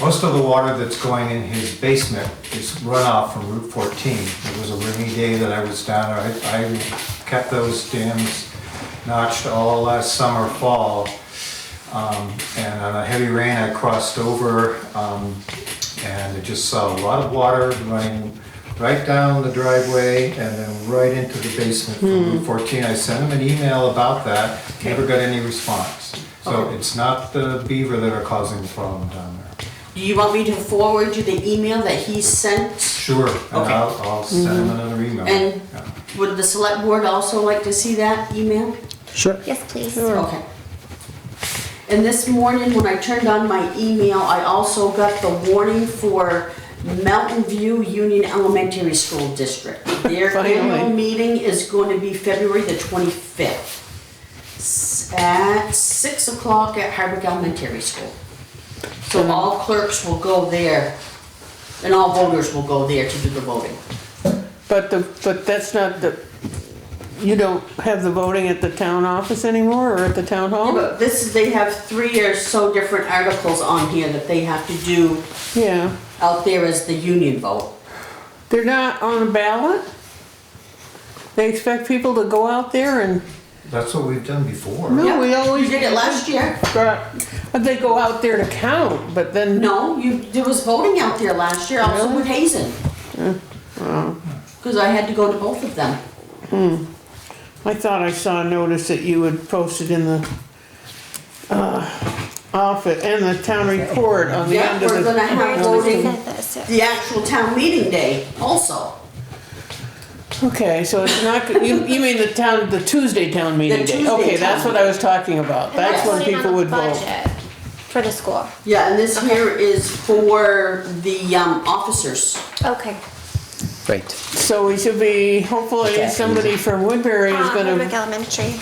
Most of the water that's going in his basement is runoff from Route 14. It was a rainy day that I was down there. I I kept those dams notched all last summer, fall. Um, And on a heavy rain, I crossed over um, and I just saw a lot of water running right down the driveway and then right into the basement from Route 14. I sent him an email about that, never got any response. So it's not the beaver that are causing the problem down there. Do you want me to forward you the email that he sent? Sure, and Okay. Mm-hmm. I'll, I'll send him another email. And- Yeah. Would the select board also like to see that email? Sure. Yes, please. Okay. And this morning, when I turned on my email, I also got the warning for Mountain View Union Elementary School District. Their annual Finally. meeting is going to be February the 25th s- at 6 o'clock at Hardwick Elementary School. So all clerks will go there, and all voters will go there to do the voting. But the, but that's not the, you don't have the voting at the town office anymore or at the town Yeah, hall? but This, they have three or so different articles on here that they have to do Yeah. out there is the union vote. They're not on a ballot? They expect people to go out there and, That's what we've done before. no, we Yeah, always. You did it last year? But Uh, they go out there to count, but then, No, you, there was voting out there last year, also with Hazen. Cause I had to go to both of them. I thought I saw a notice that you had posted in the, uh, office, in the town report on the Yeah, end of the. we're gonna have Voting. voting the actual town meeting day also. Okay, so it's not, you, you mean the town, the Tuesday town meeting day? Tuesday Okay, that's town what I was talking about, And that's when voting on people the would vote. budget For the school. Yeah, and this here is for the, um, officers. Okay. Right. So we should be, hopefully, Okay. somebody from Woodbury is Um, gonna Hardwick Elementary.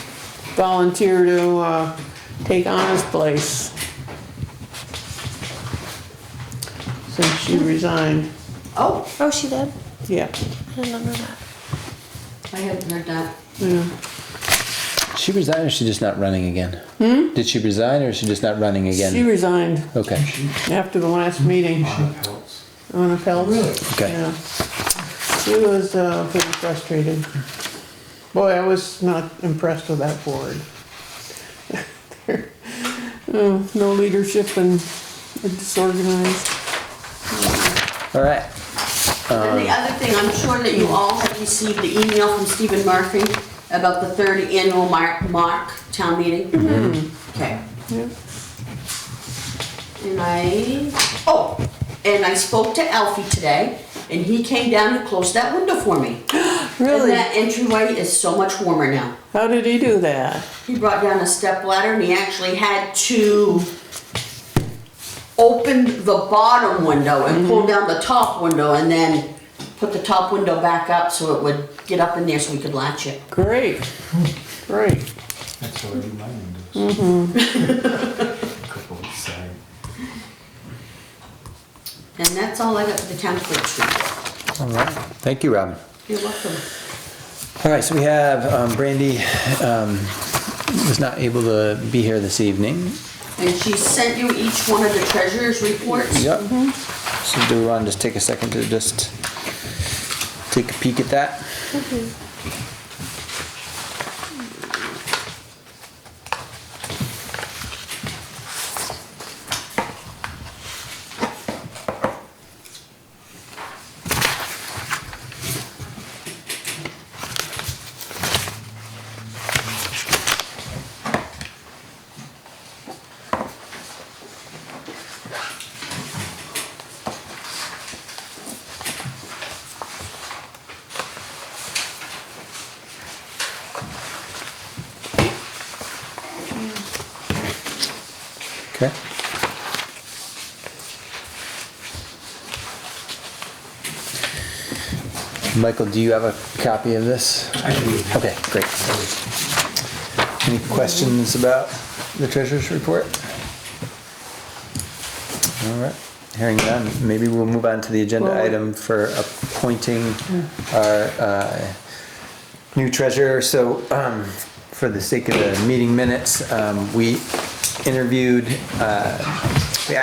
volunteer to, uh, take Anna's place. Since she resigned, Oh, Oh, she did? yeah, I didn't know that. I hadn't heard that. yeah. She resigned or is she just not running again? Hmm? Did she resign or is she just not running again? She resigned okay. after the last meeting, On the pelts. Anna Oh, Phelps. Okay. Yeah. She was, uh, pretty frustrated. Boy, I was not impressed with that board. Oh, No leadership and disorganized. All right. And the other thing, I'm sure that you all have received the email from Stephen Murphy about the third annual Mark, Mark Town Meeting. Okay. And I, oh, and I spoke to Alfie today, and he came down and closed that window for me. And Really? that entryway is so much warmer now. How did he do that? He brought down a step ladder and he actually had to open the bottom window and pull down the top window and then put the top window back up so it would get up in there so we could latch it. Great, great. That's what I reminded us. Mm-hmm. Couple of side- And that's all I got for the town clerk's report. All right. Um, Thank you, Robin. You're welcome. All right, so we have um, Brandy um, was not able to be here this evening. And she sent you each one of the treasurer's reports? Yep. So do we want to just take a second to just take a peek at that? Okay. Michael, do you have a copy of this? I do. Okay, great. Any questions about the treasurer's report? All right, hearing none, maybe we'll move on to the agenda Well- item for appointing our uh, new treasurer. So um, for the sake of the meeting minutes, um, we interviewed uh,